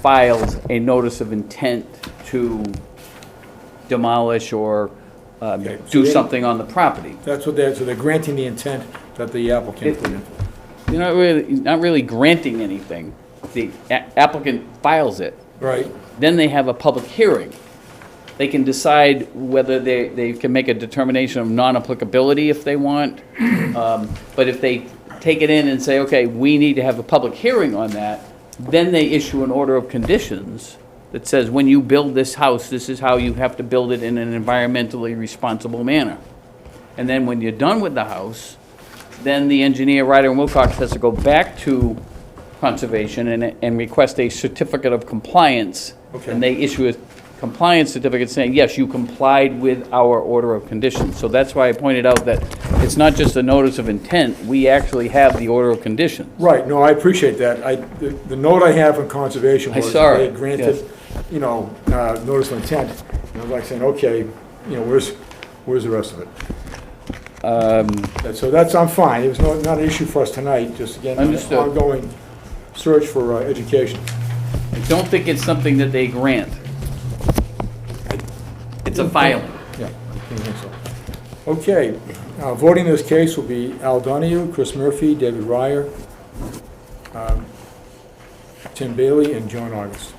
filed a notice of intent to demolish or uh, Okay, so do they- something on the property. That's what they're, so they're granting the intent that the applicant It- put in. You're not really, you're not really granting anything. The a- applicant files it. Right, Then they have a public hearing. They can decide whether they, they can make a determination of non-applicability if they want. Um, But if they take it in and say, okay, we need to have a public hearing on that, then they issue an order of conditions that says, when you build this house, this is how you have to build it in an environmentally responsible manner. And then when you're done with the house, then the engineer, Ryder and Wilcox, has to go back to conservation and, and request a certificate of compliance. Okay. And they issue a compliance certificate saying, yes, you complied with our order of conditions. So that's why I pointed out that it's not just a notice of intent, we actually have the order of conditions. right, no, I appreciate that. I, the the note I have from conservation I was saw they it, granted, you know, uh, notice of intent. And I was like saying, okay, you know, where's, where's the rest of it? Um, That- So that's, I'm fine, it was no- not an issue for us tonight, just again, an Understood. ongoing search for uh, education. I don't think it's something that they grant. It's a filing. Yeah, I think so. Okay, uh, voting in this case will be Al Donahue, Chris Murphy, David Ryer, um, Tim Bailey, and John August.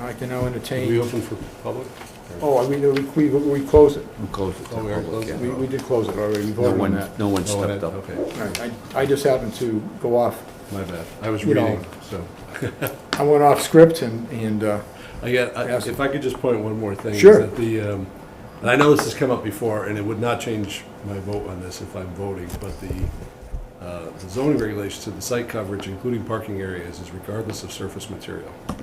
I can now We entertain, open for public? oh, we, we, we we closed it. Close it to Oh, we are public, yeah. We, we did close it already, we No voted on one, that. no one Oh, stepped that- up. Okay, All right, I, I just happened to go off, my bad. I was You know. reading, so. I went off script and, and, uh, I got, I- Yes. if I could just point one more thing. is Sure. that The, um, and I know this has come up before, and it would not change my vote on this if I'm voting, but the uh, the zoning regulations of the site coverage, including parking areas, is regardless of surface material. And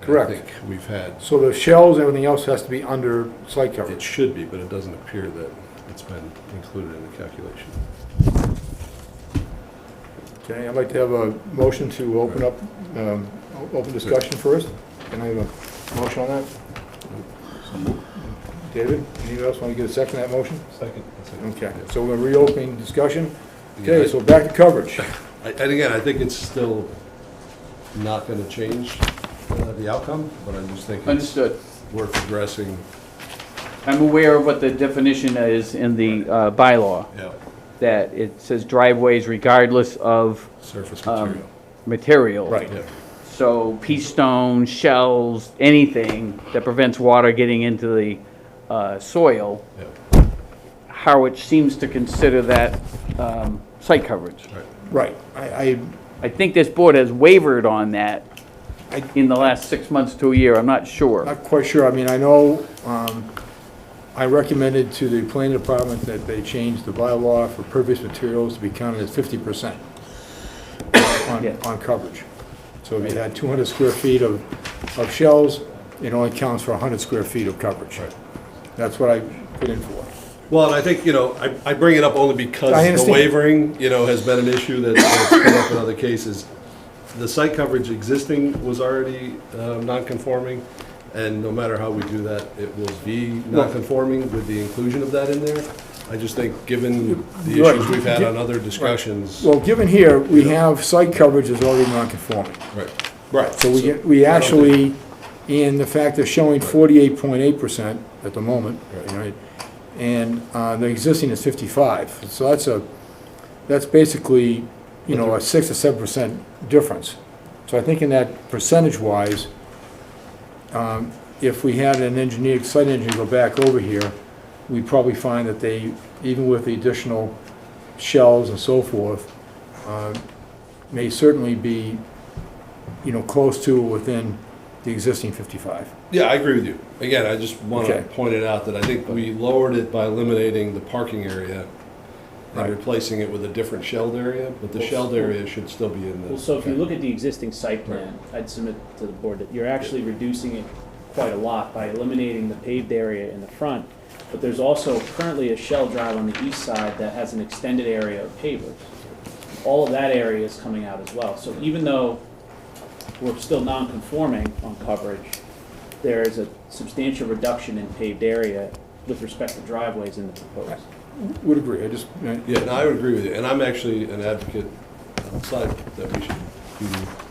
Correct. I think we've had, so the shells, everything else has to be under site it coverage. should be, but it doesn't appear that it's been included in the calculation. Okay, I'd like to have a motion to open up, um, o- open discussion first. Can I have a motion on that? David, anybody else want to get a second to that motion? Second. Okay, so we're reopening discussion. Okay, so back to coverage. I- And again, I think it's still not going to change uh, the outcome, but I just think it's Understood. worth addressing. I'm aware of what the definition is in the uh, bylaw, Yeah. that it says driveways regardless of Surface um, material. material. Yeah. So pea stone, shells, anything that prevents water getting into the uh, soil, Yeah. Harwich seems to consider that um, site coverage. Right. Right, I, I think this board has wavered on that I, I in the last six months to a year, I'm not sure. Not quite sure. I mean, I know, um, I recommended to the planning department that they change the bylaw for pervious materials to be counted as fifty percent on, Yeah. on coverage. So if you had two hundred square feet of, of shells, it only counts for hundred square feet of coverage. That's what I put in for. Well, and I think, you know, I, I bring it up only because I the understand. wavering, you know, has been an issue that- that's come up in other cases. The site coverage existing was already um, non-conforming, and no matter how we do that, it will be non-conforming with the inclusion of that in there. I just think, given the Right. issues we've had on other discussions. Well, given here, we have site coverage is already non-conforming. Right, right. So we, get- we actually, and the fact they're showing forty-eight point eight percent at the moment, right? And, uh, the existing is fifty-five, so that's a, that's basically, you know, a six or seven percent difference. So I think in that percentage-wise, um, if we had an engineer, site engineer go back over here, we'd probably find that they, even with the additional shells and so forth, uh, may certainly be you know, close to or within the existing 55. Yeah, I agree with you. Again, I just want to Okay. point it out that I think we lowered it by eliminating the parking area Right. and replacing it with a different shelled area, but the shelled area should still be in Well, the, so if you look at the existing site plan, I'd submit to the board that you're actually reducing it quite a lot by eliminating the paved area in the front. But there's also currently a shell drive on the east side that has an extended area of pavers. All of that area is coming out as well. So even though we're still non-conforming on coverage, there is a substantial reduction in paved area with respect to driveways in the proposed. Would agree, I just, I- yeah, and I would agree with you. And I'm actually an advocate outside that we should do